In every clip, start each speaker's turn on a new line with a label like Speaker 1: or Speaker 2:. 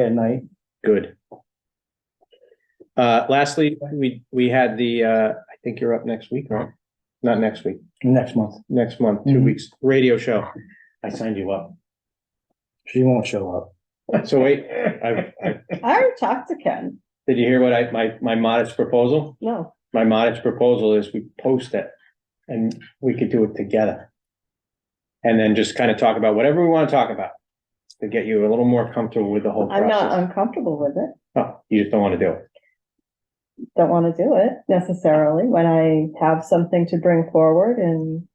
Speaker 1: at night.
Speaker 2: Good. Uh, lastly, we, we had the, uh, I think you're up next week, right? Not next week,
Speaker 1: Next month,
Speaker 2: next month, two
Speaker 1: Mhm.
Speaker 2: weeks, radio show. I signed you up.
Speaker 1: she won't show up.
Speaker 2: So wait, I, I,
Speaker 3: I already talked to Ken.
Speaker 2: did you hear what I, my, my modest proposal?
Speaker 3: No,
Speaker 2: My modest proposal is we post it and we could do it together. And then just kind of talk about whatever we want to talk about to get you a little more comfortable with the whole
Speaker 3: I'm not
Speaker 2: process.
Speaker 3: uncomfortable with it.
Speaker 2: Oh, You just don't want to do it.
Speaker 3: Don't want to do it necessarily when I have something to bring forward and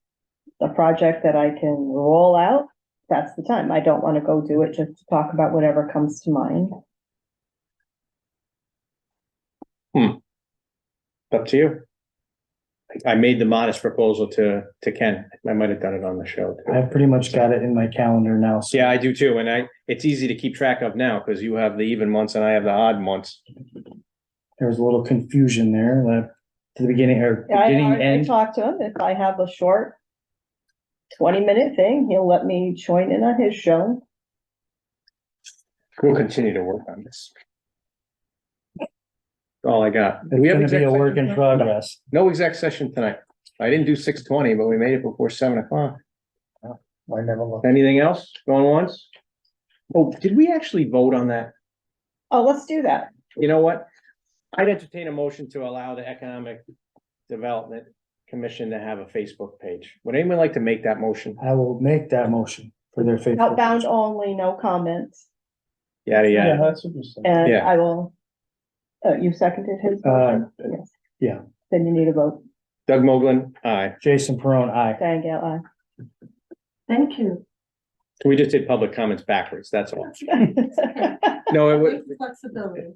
Speaker 3: a project that I can roll out. That's the time. I don't want to go do it just to talk about whatever comes to mind.
Speaker 2: Up to you. I- I made the modest proposal to, to Ken. I might have done it on the show. too.
Speaker 1: I've pretty much got it in my calendar now, so
Speaker 2: Yeah, I do too. And I, it's easy to keep track of now because you have the even months and I have the odd months.
Speaker 1: there was a little confusion there, that to the beginning or
Speaker 3: I
Speaker 1: beginning
Speaker 3: already
Speaker 1: end.
Speaker 3: talked to him. If I have a short twenty minute thing, he'll let me join in on his show.
Speaker 2: We'll continue to work on this. All I got. Do we have
Speaker 1: It's
Speaker 2: exec
Speaker 1: gonna be a
Speaker 2: session
Speaker 1: work in
Speaker 2: tonight?
Speaker 1: progress.
Speaker 2: No exec session tonight. I didn't do six twenty, but we made it before seven o'clock.
Speaker 1: I never looked.
Speaker 2: Anything else going once? Oh, did we actually vote on that?
Speaker 3: Oh, let's do that.
Speaker 2: You know what? I'd entertain a motion to allow the Economic Development Commission to have a Facebook page. Would anyone like to make that motion?
Speaker 1: I will make that motion for their faithful.
Speaker 3: Outbound only, no comments.
Speaker 2: Yada,
Speaker 1: Yeah,
Speaker 2: yada.
Speaker 1: that's what you said.
Speaker 3: And
Speaker 2: Yeah.
Speaker 3: I will, oh, you seconded his? motion? Yes.
Speaker 1: Uh, yeah.
Speaker 3: Then you need a vote.
Speaker 2: Doug Moglen, aye.
Speaker 1: Jason Peron, aye.
Speaker 3: Diane Gale, aye.
Speaker 4: Thank you.
Speaker 2: We just did public comments backwards, that's all.
Speaker 3: It
Speaker 2: No, it was,
Speaker 4: With Flexibility.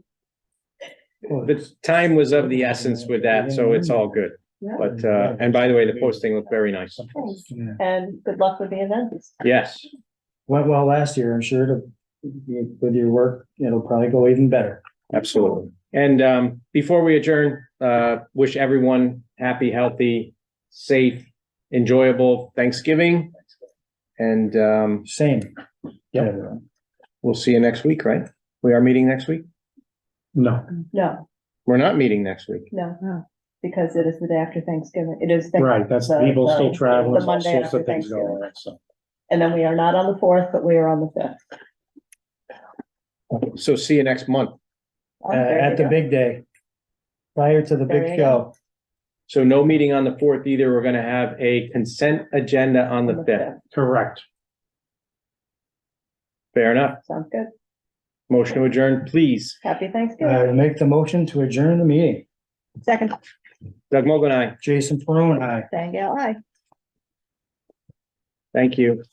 Speaker 2: the time was of the essence with that, so it's all good.
Speaker 4: Yeah.
Speaker 2: But, uh, and by the way, the posting looked very nice.
Speaker 1: Yeah.
Speaker 3: And good luck with the events.
Speaker 2: Yes,
Speaker 1: Went well last year, I'm sure to, with your work, it'll probably go even better.
Speaker 2: absolutely. And, um, before we adjourn, uh, wish everyone happy, healthy, safe, enjoyable Thanksgiving. And, um,
Speaker 1: Same.
Speaker 2: Yep. We'll see you next week, right? We are meeting next week?
Speaker 1: No.
Speaker 3: No,
Speaker 2: We're not meeting next week.
Speaker 3: no, because it is the day after Thanksgiving. It is. Thanksgiving.
Speaker 5: Right, that's,
Speaker 3: The-
Speaker 5: people still
Speaker 3: the-
Speaker 5: traveling,
Speaker 3: the
Speaker 5: there's all
Speaker 3: Monday
Speaker 5: sorts
Speaker 3: after
Speaker 5: of things
Speaker 3: Thanksgiving.
Speaker 5: going on, so.
Speaker 3: And then we are not on the fourth, but we are on the fifth.
Speaker 2: So see you next month.
Speaker 3: Oh,
Speaker 1: Uh,
Speaker 3: there you
Speaker 1: at the
Speaker 3: go.
Speaker 1: big day. Prior to the
Speaker 3: There
Speaker 1: big
Speaker 3: you go.
Speaker 1: show.
Speaker 2: So no meeting on the fourth either. We're gonna have a consent agenda on
Speaker 3: On
Speaker 2: the fifth.
Speaker 5: Correct.
Speaker 2: Fair enough.
Speaker 3: Sounds good.
Speaker 2: Motion to adjourn, please.
Speaker 3: Happy
Speaker 1: Uh,
Speaker 3: Thanksgiving.
Speaker 1: make the motion to adjourn the meeting.
Speaker 3: Second,
Speaker 2: Doug Mogul, aye.
Speaker 1: Jason Peron, aye.
Speaker 3: Diane Gale, aye.
Speaker 2: Thank you.